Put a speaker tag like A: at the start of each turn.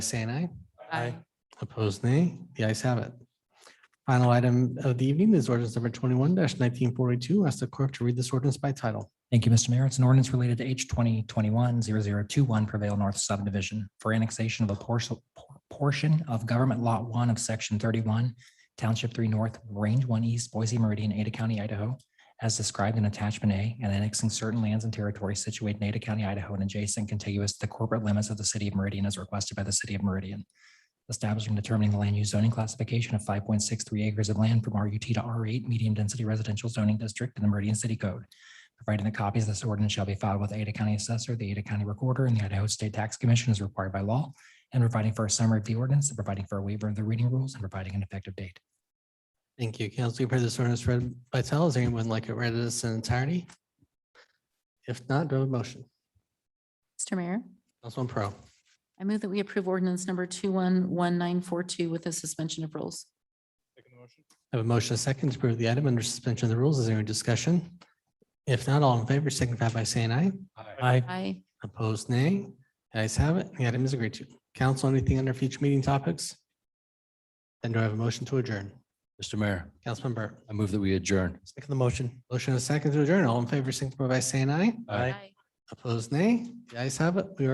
A: saying aye.
B: Aye.
A: Opposed, nay. The ayes have it. Final item of the evening is ordinance number twenty-one nineteen forty-two. Ask the clerk to read this ordinance by title.
C: Thank you, Mr. Mayor. It's an ordinance related to H 2021-0021 Prevail North subdivision for annexation of a parcel portion of government lot one of section thirty-one, township three north, range one east, Boise Meridian, Ada County, Idaho, as described in attachment A, and annexing certain lands and territories situated in Ada County, Idaho, and adjacent contiguous to the corporate limits of the city of Meridian as requested by the city of Meridian. Establishing and determining the land use zoning classification of five point six three acres of land from RUT to R eight, medium density residential zoning district in the Meridian City Code providing the copies of this ordinance shall be filed with Ada County Assessor, the Ada County Recorder, and the Idaho State Tax Commission as required by law, and providing for a summary of the ordinance, and providing for a waiver of the reading rules, and providing an effective date.
A: Thank you. Council, you've heard this ordinance read by title. Is anyone like it read in its entirety? If not, do I have a motion?
B: Mr. Mayor,
A: Councilman Pro.
B: I move that we approve ordinance number two one one nine four two with a suspension of rules.
A: I have a motion, a second to approve the item under suspension of the rules. Is there any discussion? If not, all in favor signify by saying aye. Aye.
B: Aye.
A: Opposed, nay. The ayes have it. The item is agreed to. Council, anything under future meeting topics? Then do I have a motion to adjourn?
D: Mr. Mayor,
A: Councilman Burr.
D: I move that we adjourn.
A: Second the motion. Motion and a second to adjourn. All in favor, signify by saying aye.
D: Aye.
A: Opposed, nay. The ayes have it. We are.